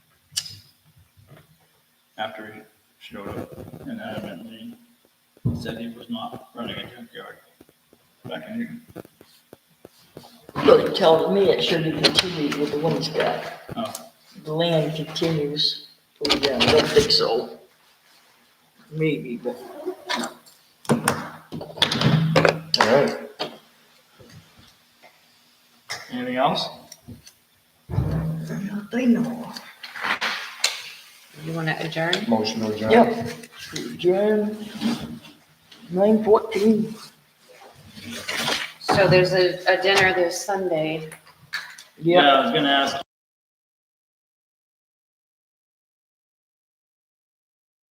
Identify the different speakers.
Speaker 1: after he showed up and adamantly said he was not running a junkyard. Back in,
Speaker 2: Look, tell me it should be continued with the one he's got.
Speaker 1: oh,
Speaker 2: The land continues for them, I don't think so. Maybe, but
Speaker 3: All right.
Speaker 1: anything else?
Speaker 2: not they know. of.
Speaker 4: You want to adjourn?
Speaker 3: Motion to adjourn.
Speaker 2: Yep, adjourn, nine fourteen,
Speaker 4: So there's a, a dinner this Sunday.
Speaker 2: yeah.
Speaker 1: I was gonna ask